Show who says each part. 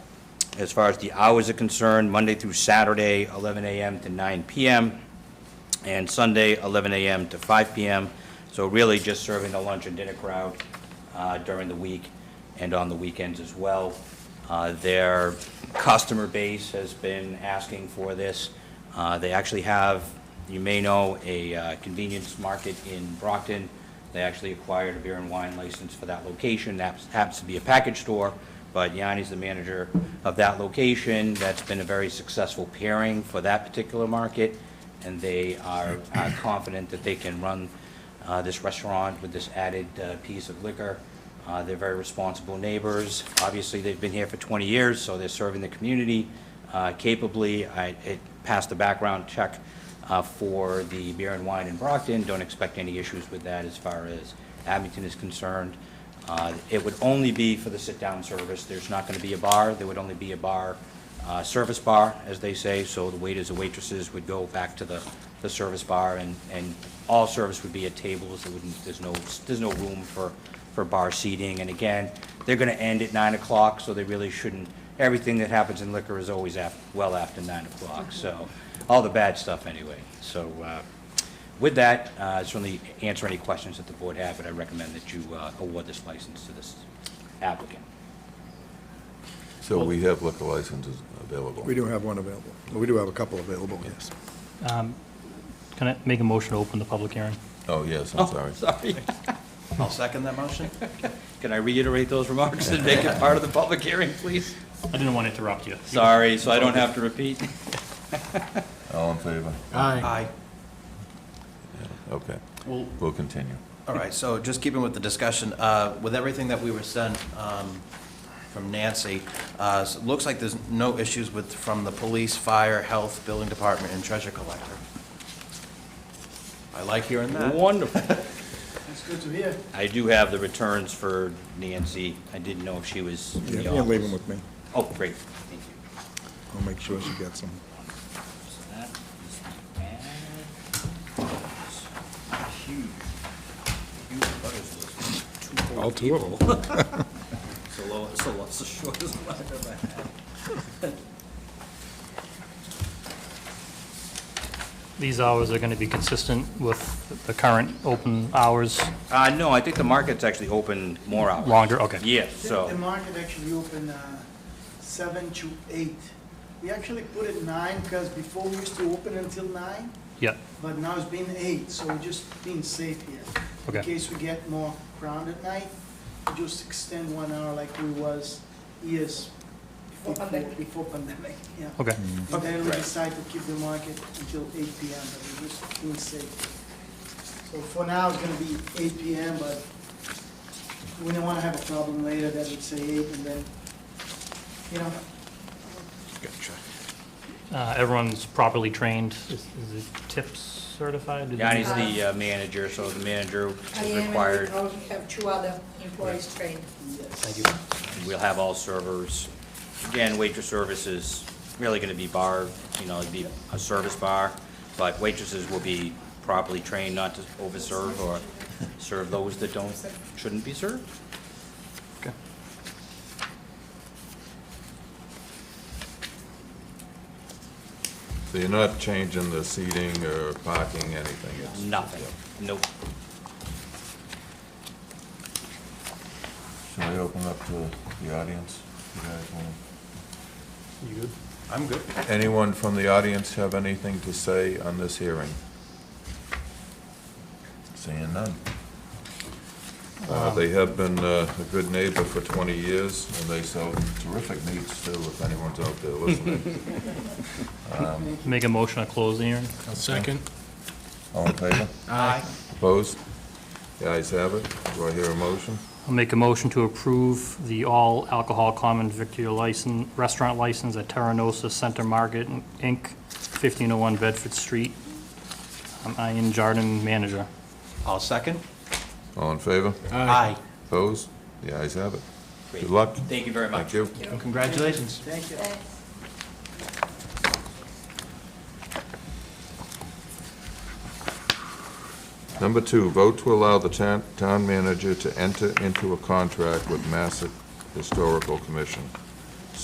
Speaker 1: As far as the hours are concerned, Monday through Saturday, 11 a.m. to 9 p.m., and Sunday, 11 a.m. to 5 p.m. So really just serving the lunch and dinner crowd uh, during the week and on the weekends as well. Uh, Their customer base has been asking for this. Uh, They actually have, you may know, a uh, convenience market in Brockton. They actually acquired a beer and wine license for that location. That happens to be a package store, but Yanni's the manager of that location. That's been a very successful pairing for that particular market and they are are confident that they can run uh, this restaurant with this added uh, piece of liquor. Uh, They're very responsible neighbors. Obviously, they've been here for 20 years, so they're serving the community uh, capably. I it passed the background check uh, for the beer and wine in Brockton. Don't expect any issues with that as far as Abington is concerned. Uh, It would only be for the sit-down service. There's not going to be a bar. There would only be a bar uh, service bar, as they say, so the waiters and waitresses would go back to the, the service bar, and, and all service would be at tables, there wouldn't, there's no, there's no room for, for bar seating, and again, they're gonna end at nine o'clock, so they really shouldn't, everything that happens in liquor is always af, well after nine o'clock, so, all the bad stuff anyway, so, uh, with that, uh, certainly answer any questions that the board have, but I recommend that you, uh, award this license to this applicant.
Speaker 2: So we have liquor licenses available.
Speaker 3: We do have one available. We do have a couple available, yes.
Speaker 4: Um, Can I make a motion to open the public hearing?
Speaker 2: Oh, yes, I'm sorry.
Speaker 1: Sorry.
Speaker 5: I'll second that motion.
Speaker 1: Can I reiterate those remarks and make it part of the public hearing, please?
Speaker 4: I didn't want to interrupt you.
Speaker 1: Sorry, so I don't have to repeat.
Speaker 2: All in favor?
Speaker 5: Aye.
Speaker 2: Okay,
Speaker 5: Well,
Speaker 2: we'll continue.
Speaker 5: all right, so just keeping with the discussion, uh, with everything that we were sent um, from Nancy, uh, so it looks like there's no issues with, from the police, fire, health, building department, and treasure collector. I like hearing that.
Speaker 1: Wonderful.
Speaker 6: That's good to hear.
Speaker 1: I do have the returns for Nancy. I didn't know if she was in
Speaker 3: Yeah,
Speaker 1: the
Speaker 3: You'll leave them
Speaker 1: office.
Speaker 3: with me.
Speaker 1: Oh, great, thank you.
Speaker 3: I'll make sure she gets them.
Speaker 1: So that is the ad. Huge. Huge butters list.
Speaker 3: All two of them.
Speaker 1: It's the lowest, it's the lowest, the shortest one I've ever had.
Speaker 4: These hours are going to be consistent with the current open hours,
Speaker 1: Uh, no, I think the market's actually open more hours.
Speaker 4: longer, okay.
Speaker 1: Yes, so.
Speaker 6: The market actually open uh, seven to eight. We actually put it nine because before we used to open until nine,
Speaker 4: Yeah,
Speaker 6: but now it's been eight, so we're just being safe here. In
Speaker 4: Okay.
Speaker 6: case we get more crowd at night, we just extend one hour like we was years before, before pandemic, yeah.
Speaker 4: okay.
Speaker 6: And then we decide to keep the market until eight PM, but we're just being safe. So for now, it's gonna be eight PM, but we don't wanna have a problem later that we say eight and then, you know,
Speaker 4: Uh, Everyone's properly trained. Is is it TIPS certified? Do they-
Speaker 1: Yanni's the uh, manager, so the manager
Speaker 7: I
Speaker 1: is
Speaker 7: am, and
Speaker 1: required,
Speaker 7: we also have two other employees trained.
Speaker 6: yes.
Speaker 1: we'll have all servers. Again, waitress service is really gonna be bar, you know, it'd be a service bar, but waitresses will be properly trained not to overserve or serve those that don't, shouldn't be served.
Speaker 4: Okay.
Speaker 2: So you're not changing the seating or parking, anything? it's-
Speaker 1: Nothing, nope.
Speaker 2: Should we open up to the audience? You guys want-
Speaker 4: You good?
Speaker 5: I'm good.
Speaker 2: Anyone from the audience have anything to say on this hearing? Seeing none. Uh, They have been uh, a good neighbor for 20 years, and they sell terrific meats, too, if anyone's out there listening.
Speaker 4: Make a motion to close the hearing?
Speaker 2: Second. All in favor?
Speaker 5: Aye.
Speaker 2: Opposed? The ayes have it. Do I hear a motion?
Speaker 4: I'll make a motion to approve the all alcohol common victor license, restaurant license at Terranosa Center Market, Inc., 1501 Bedford Street. I'm Ian Jarden, manager.
Speaker 5: I'll second.
Speaker 2: All in favor?
Speaker 5: Aye.
Speaker 2: Opposed? The ayes have it.
Speaker 1: Great.
Speaker 2: Good luck.
Speaker 1: Thank you very much.
Speaker 2: Thank you.
Speaker 5: Congratulations.
Speaker 6: Thank you.
Speaker 7: Thanks.
Speaker 2: Number two, vote to allow the town town manager to enter into a contract with Massett Historical Commission.